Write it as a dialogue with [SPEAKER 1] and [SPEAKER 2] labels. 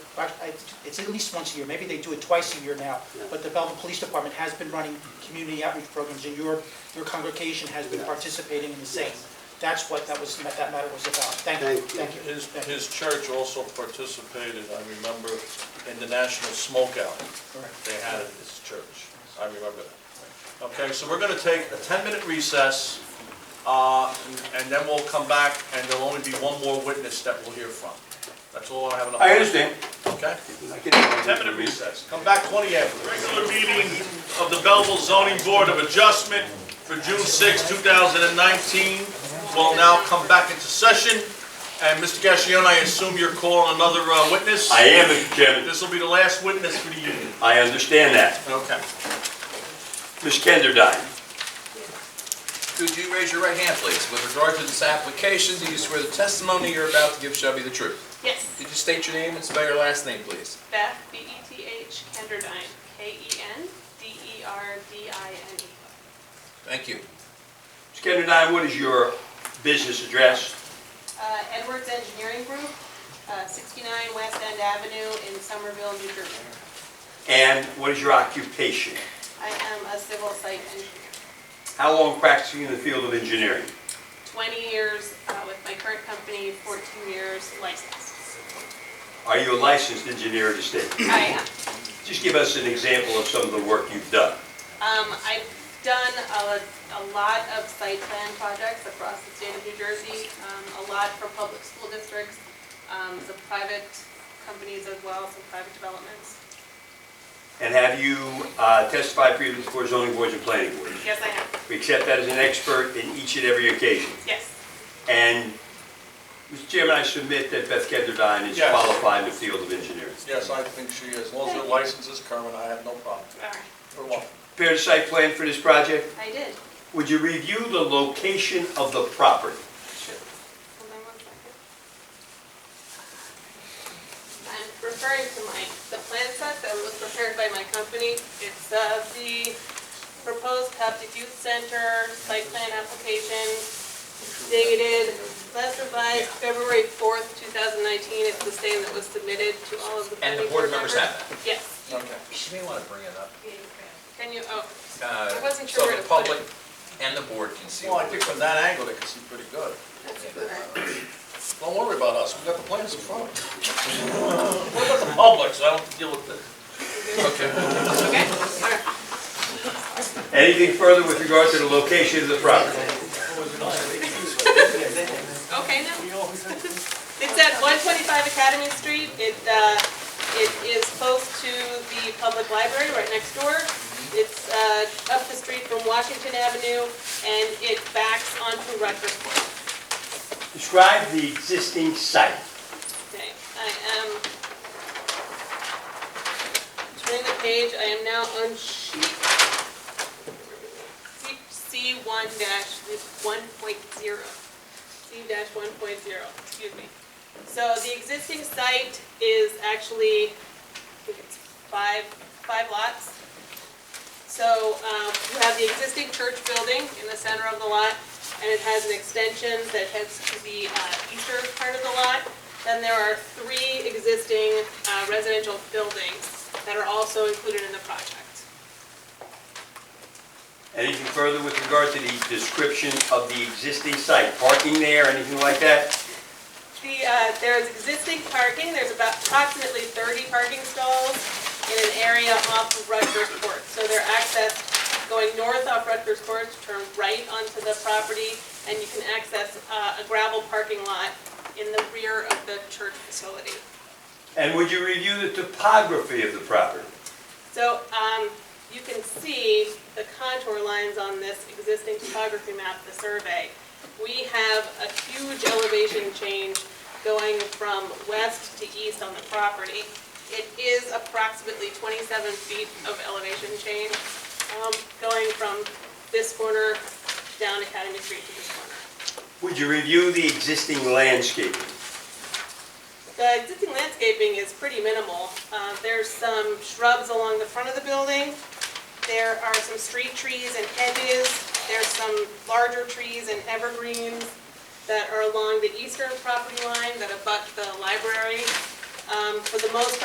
[SPEAKER 1] but I- it's at least once a year, maybe they do it twice a year now, but the Belleville Police Department has been running community outreach programs, and your, your congregation has been participating in the same. That's what that was, that matter was about. Thank you,
[SPEAKER 2] Thank
[SPEAKER 1] thank you.
[SPEAKER 3] His,
[SPEAKER 1] Thank you.
[SPEAKER 3] his church also participated, I remember, in the National Smokeout.
[SPEAKER 1] Correct.
[SPEAKER 3] They had it at his church. I remember that. Okay, so we're going to take a 10-minute recess, uh, and then we'll come back, and there'll only be one more witness that we'll hear from. That's all I have. on the-
[SPEAKER 2] I understand.
[SPEAKER 3] Okay?
[SPEAKER 2] I can-
[SPEAKER 3] 10-minute recess. Come back 20 after. Regular meeting of the Belleville Zoning Board of Adjustment for June 6, 2019 will now come back into session. And Mr. Gassion, I assume you're calling another uh, witness?
[SPEAKER 4] I am, Mr. Chairman.
[SPEAKER 3] This will be the last witness for the evening.
[SPEAKER 4] I understand that.
[SPEAKER 3] Okay.
[SPEAKER 4] Ms. Kenderdine,
[SPEAKER 5] Could you raise your right hand, please? With regard to this application, do you swear the testimony you're about to give shall be the truth?
[SPEAKER 6] Yes,
[SPEAKER 5] Could you state your name and spell your last name, please?
[SPEAKER 6] Beth, B-E-T-H, Kenderdine, E K-E-N-D-E-R-D-I-N-E.
[SPEAKER 5] Thank you.
[SPEAKER 4] Ms. Kenderdine, what is your business address?
[SPEAKER 6] Uh, Edwards Engineering Group, uh, 69 West End Avenue in Somerville, New Jersey.
[SPEAKER 4] And what is your occupation?
[SPEAKER 6] I am a civil site engineer,
[SPEAKER 4] How long practicing in the field of engineering?
[SPEAKER 6] 20 years uh, with my current company, 14 years licensed.
[SPEAKER 4] Are you a licensed engineer in the state?
[SPEAKER 6] I am.
[SPEAKER 4] Just give us an example of some of the work you've done.
[SPEAKER 6] Um, I've done a, a lot of site plan projects across the state of New Jersey, um, a lot for public school districts, um, some private companies as well, some private developments.
[SPEAKER 4] And have you uh, testified previously before zoning boards and planning boards?
[SPEAKER 6] Yes, I have,
[SPEAKER 4] We accept that as an expert in each and every occasion.
[SPEAKER 6] yes.
[SPEAKER 4] And, Mr. Chairman, I submit that Beth Kenderdine is
[SPEAKER 3] Yes.
[SPEAKER 4] qualified in the field of engineering.
[SPEAKER 3] Yes, I think she is. As long as her license is current, I have no problem.
[SPEAKER 6] All right,
[SPEAKER 3] For what?
[SPEAKER 4] Prepared a site plan for this project?
[SPEAKER 6] I did.
[SPEAKER 4] Would you review the location of the property?
[SPEAKER 6] Sure. Hold on one second. I'm referring to my, the plan set that was prepared by my company. It's uh, the proposed Coptic Youth Center site plan application dated last revised February 4th, 2019. It's the same that was submitted to all of the
[SPEAKER 5] And
[SPEAKER 6] planning
[SPEAKER 5] the
[SPEAKER 6] board
[SPEAKER 5] board
[SPEAKER 6] members.
[SPEAKER 5] members have that.
[SPEAKER 6] Yes.
[SPEAKER 3] Okay.
[SPEAKER 5] She may want to bring it up.
[SPEAKER 6] Can you, oh,
[SPEAKER 5] Uh,
[SPEAKER 6] I wasn't sure where to put
[SPEAKER 5] So the
[SPEAKER 6] it.
[SPEAKER 5] public and the board can see.
[SPEAKER 3] Well, I
[SPEAKER 5] what we-
[SPEAKER 3] think from that angle, they can see pretty good.
[SPEAKER 6] that's it. All right.
[SPEAKER 3] Don't worry about us, we got the plans in front. What about the public, so I don't have to deal with this?
[SPEAKER 5] Okay.
[SPEAKER 6] Okay? All right.
[SPEAKER 4] Anything further with regard to the location of the property?
[SPEAKER 6] Okay, no. It's at one twenty-five Academy Street. It, uh, it is close to the public library right next door. It's, uh, up the street from Washington Avenue and it backs onto Rutgers Court.
[SPEAKER 4] Describe the existing site.
[SPEAKER 6] Okay, I am turning the page. I am now on sheet C one dash one point zero. C dash one point zero, excuse me. So the existing site is actually, I think it's five, five lots. So, um, you have the existing church building in the center of the lot, and it has an extension that heads to the, uh, eastern part of the lot. Then there are three existing, uh, residential buildings that are also included in the project.
[SPEAKER 4] Anything further with regard to the description of the existing site? Parking there, anything like that?
[SPEAKER 6] The, uh, there is existing parking, there's about approximately thirty parking stalls in an area off of Rutgers Court. So they're accessed going north off Rutgers Court, turn right onto the property, and you can access, uh, a gravel parking lot in the rear of the church facility.
[SPEAKER 4] And would you review the topography of the property?
[SPEAKER 6] So, um, you can see the contour lines on this existing topography map, the survey. We have a huge elevation change going from west to east on the property. It is approximately twenty-seven feet of elevation change, um, going from this corner down Academy Street to this corner.
[SPEAKER 4] Would you review the existing landscaping?
[SPEAKER 6] The existing landscaping is pretty minimal. Uh, There's some shrubs along the front of the building. There are some street trees and hedges. There's some larger trees and evergreens that are along the eastern property line that abut the library. Um, For the most